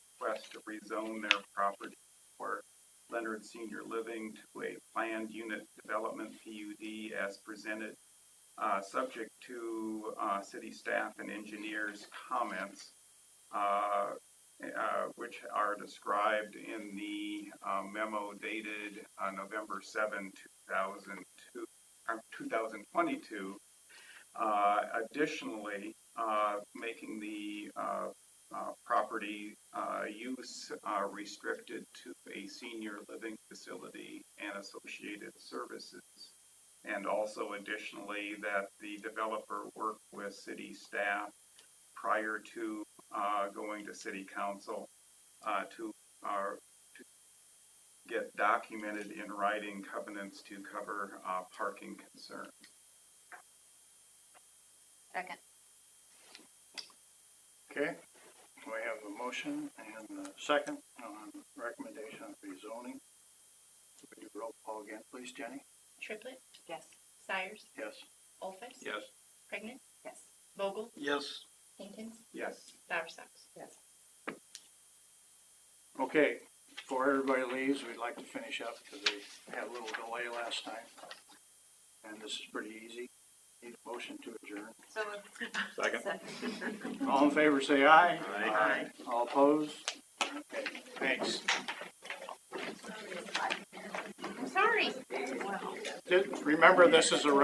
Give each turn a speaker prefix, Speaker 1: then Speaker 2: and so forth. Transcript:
Speaker 1: request to rezone their property for Leonard Senior Living to a planned unit development PUD as presented, uh, subject to, uh, city staff and engineers' comments, uh, uh, which are described in the uh, memo dated, uh, November 7, 2002, uh, 2022, uh, additionally, uh, making the, uh, uh, property, uh, use, uh, restricted to a senior living facility and associated services. And also additionally, that the developer work with city staff prior to, uh, going to city council, uh, to, uh, to get documented in writing covenants to cover, uh, parking concerns.
Speaker 2: Second.
Speaker 3: Okay, we have a motion and a second on recommendation of rezoning. We do roll call again, please, Jenny?
Speaker 4: Triplet,
Speaker 2: Yes.
Speaker 4: Sires,
Speaker 3: Yes.
Speaker 4: Olfest.
Speaker 1: Yes.
Speaker 4: Pregnant,
Speaker 2: Yes.
Speaker 4: Vogel,
Speaker 3: Yes.
Speaker 4: Hinton,
Speaker 1: Yes.
Speaker 4: Bowersox.
Speaker 2: Yes.
Speaker 3: Okay, before everybody leaves, we'd like to finish up because we had a little delay last time. And this is pretty easy. Need a motion to adjourn.
Speaker 2: So
Speaker 5: Second.
Speaker 3: All in favor, say aye.
Speaker 5: Aye.
Speaker 3: All opposed? Okay, thanks.
Speaker 2: I'm sorry.
Speaker 3: Just Remember, this is a